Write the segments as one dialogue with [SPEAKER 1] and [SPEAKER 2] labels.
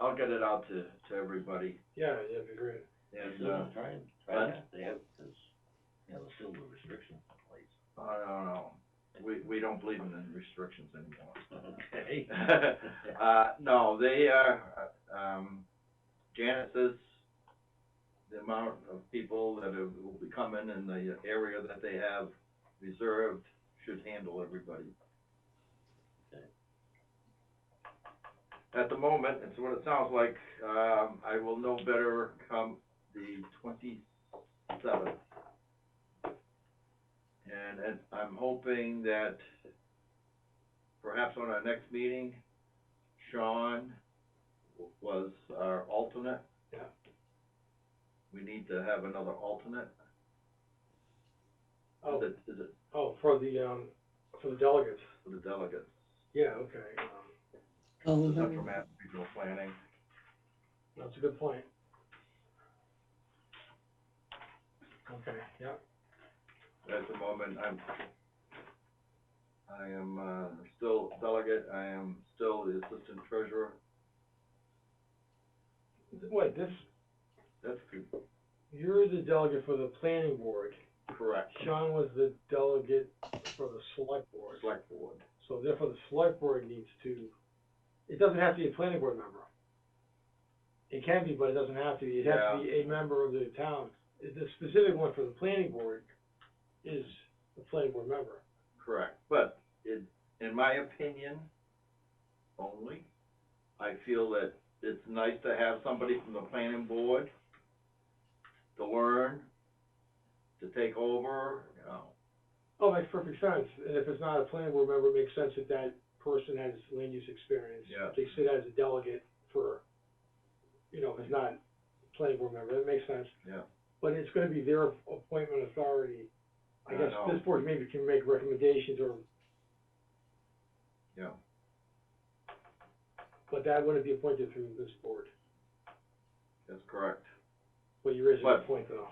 [SPEAKER 1] I'll get it out to, to everybody,
[SPEAKER 2] Yeah, that'd be great.
[SPEAKER 1] and, uh,
[SPEAKER 3] Try and,
[SPEAKER 1] but-
[SPEAKER 3] try that, they have, cause, you know, there's still the restrictions in place.
[SPEAKER 1] uh, I don't know, we, we don't believe in the restrictions anymore.
[SPEAKER 3] Okay.
[SPEAKER 1] Uh, no, they are, uh, um, Janet says the amount of people that are- will be coming in the area that they have reserved should handle everybody.
[SPEAKER 3] Okay.
[SPEAKER 1] At the moment, it's what it sounds like, um, I will know better come the twenty-seventh. And, and I'm hoping that perhaps on our next meeting, Sean was our alternate.
[SPEAKER 2] Yeah.
[SPEAKER 1] We need to have another alternate.
[SPEAKER 2] Oh,
[SPEAKER 1] Is it, is it
[SPEAKER 2] oh, for the, um, for the delegates,
[SPEAKER 1] for the delegates?
[SPEAKER 2] yeah, okay, um,
[SPEAKER 1] This Oh, is up for Mass Regional Planning.
[SPEAKER 2] that's a good point. Okay, yeah,
[SPEAKER 1] At the moment, I'm, I am, uh, still delegate, I am still the assistant treasurer.
[SPEAKER 2] wait, this,
[SPEAKER 1] That's co-
[SPEAKER 2] you're the delegate for the planning board,
[SPEAKER 1] correct.
[SPEAKER 2] Sean was the delegate for the select board.
[SPEAKER 1] Select board.
[SPEAKER 2] So therefore, the select board needs to, it doesn't have to be a planning board member. It can be, but it doesn't have to be, it has to be a member of the town. The specific one for the planning board is the planning board member.
[SPEAKER 1] Correct, but in, in my opinion only, I feel that it's nice to have somebody from the planning board to learn, to take over, you know.
[SPEAKER 2] Oh, makes perfect sense, and if it's not a planning board member, it makes sense that that person has land use experience.
[SPEAKER 1] Yeah.
[SPEAKER 2] They sit as a delegate for, you know, if it's not a planning board member, that makes sense.
[SPEAKER 1] Yeah.
[SPEAKER 2] But it's gonna be their appointment authority. I
[SPEAKER 1] I
[SPEAKER 2] guess
[SPEAKER 1] know.
[SPEAKER 2] this board maybe can make recommendations or
[SPEAKER 1] Yeah.
[SPEAKER 2] But that wouldn't be appointed through this board,
[SPEAKER 1] That's correct.
[SPEAKER 2] but you raise a good
[SPEAKER 1] But-
[SPEAKER 2] point though.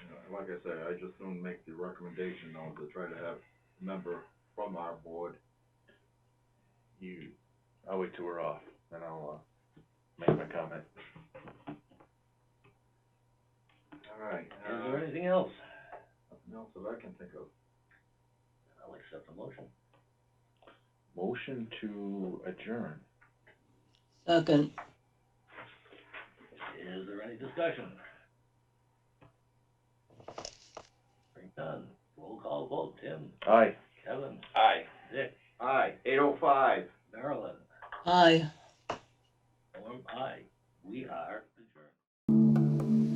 [SPEAKER 1] You know, Like I say, I just don't make the recommendation though, to try to have a member from our board.
[SPEAKER 4] You, I'll wait till we're off, and I'll, uh, make my comment.
[SPEAKER 1] All right,
[SPEAKER 3] Is
[SPEAKER 1] uh,
[SPEAKER 3] there anything else?
[SPEAKER 1] nothing else that I can think of.
[SPEAKER 3] I'll accept the motion.
[SPEAKER 4] Motion to adjourn.
[SPEAKER 5] Second.
[SPEAKER 3] Is there any discussion? Hearing none, roll call vote, Tim,
[SPEAKER 4] Aye.
[SPEAKER 3] Kevin,
[SPEAKER 4] Aye.
[SPEAKER 3] Dick,
[SPEAKER 1] Aye, eight oh five.
[SPEAKER 3] Marilyn,
[SPEAKER 5] Aye.
[SPEAKER 3] Norm, I, we are adjourned.